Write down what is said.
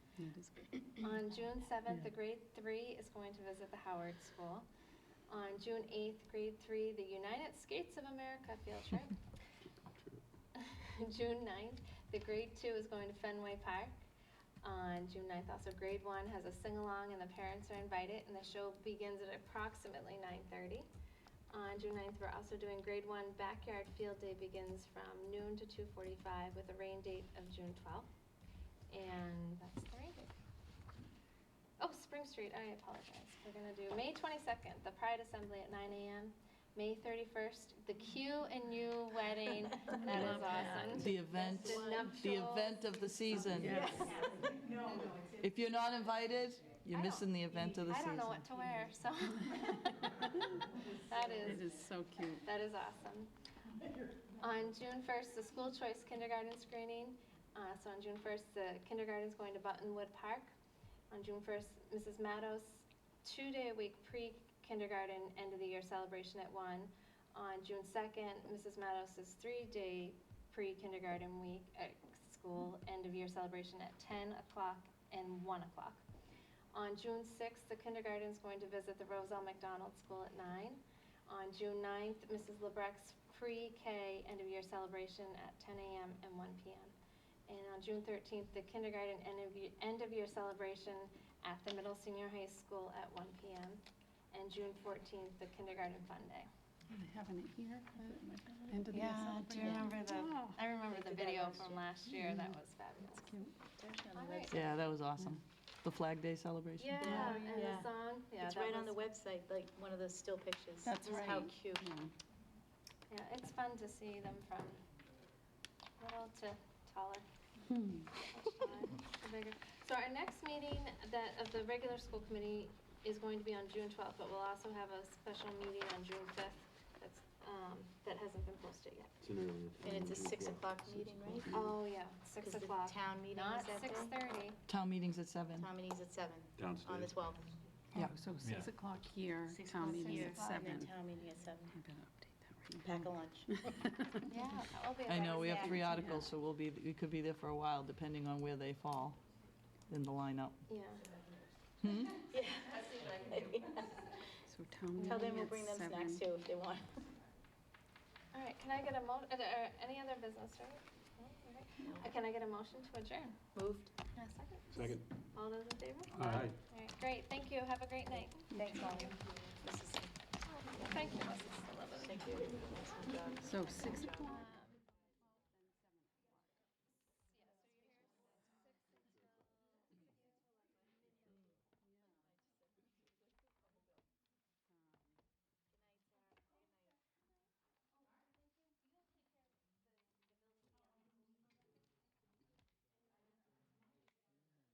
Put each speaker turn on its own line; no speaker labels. On June 7th, the grade three is going to visit the Howard School. On June 8th, grade three, the United States of America field trip. June 9th, the grade two is going to Fenway Park. On June 9th, also grade one has a sing-along and the parents are invited and the show begins at approximately 9:30. On June 9th, we're also doing grade one backyard field day begins from noon to 2:45 with a rain date of June 12th. And that's the rain date. Oh, Spring Street, I apologize. We're going to do May 22nd, the Pride Assembly at 9 AM. May 31st, the Q and U wedding. That
Love that.
is awesome.
The event,
The
the
nuptials.
event of the season.
No, no, it's
If you're not invited, you're
I don't-
missing the event of the
I
season.
don't know what to wear, so. That
It
is,
is so cute.
that is awesome. On June 1st, the school choice kindergarten screening. Uh, So on June 1st, the kindergarten's going to Buttonwood Park. On June 1st, Mrs. Maddow's two-day-a-week pre-kindergarten end-of-the-year celebration at 1. On June 2nd, Mrs. Maddow's three-day pre-kindergarten week at school end-of-year celebration at 10 o'clock and 1 o'clock. On June 6th, the kindergarten's going to visit the Roselle McDonald School at 9. On June 9th, Mrs. Lebrecht's pre-K end-of-year celebration at 10 a.m. and 1 p.m. And on June 13th, the kindergarten end-of-year- end-of-year celebration at the middle senior high school at 1 p.m. And June 14th, the kindergarten fun day.
I have it here.
Yeah, I do remember
Oh.
the, I remember
Remember the
the video.
video from last year? That was fabulous. Mm-hmm. All right.
Yeah, that was awesome. The Flag Day celebration.
Yeah, and the
Yeah.
song. Yeah,
It's
that
right on the
was-
website, like one of the still pictures.
That's
Just How
right.
cute.
Yeah, it's fun to see them from little to taller. much time, the bigger. So our next meeting that, of the regular school committee is going to be on June 12th, but we'll also have a special meeting on June 5th that's, um, that hasn't been posted yet.
It's an earlier time.
And it's a
June
six
12th.
o'clock
Six
meeting, right?
Oh,
o'clock.
yeah, 6
Because the
o'clock.
town meeting is that day?
Not 6:30.
Town meeting's at seven.
Tom and E's at seven. On the
Downstairs.
12th.
Yeah.
So 6 o'clock here,
Oh. Six
town
o'clock
meeting
here,
at
And then
7.
town meeting at seven.
I'm going to update that right
Pack a lunch.
Yeah, that will be. a
I know, we have
Wednesday.
three articles, so we'll be, we could be there for a while, depending on where they fall in the lineup. Hmm?
Yeah.
now. So town meeting at 7.
Tell them we'll bring them snacks too if they want.
All right, can I get a mo, are there any other business, right? No, all right. Uh, Can I get a motion to adjourn?
Moved.
A second?
Second.
All those in favor? All
Aye.
right, great, thank you, have a great night.
Thanks, all. This is,
Thank you, Mrs. Sullivan.
thank you. Nice
So
job.
6 o'clock.
Uh,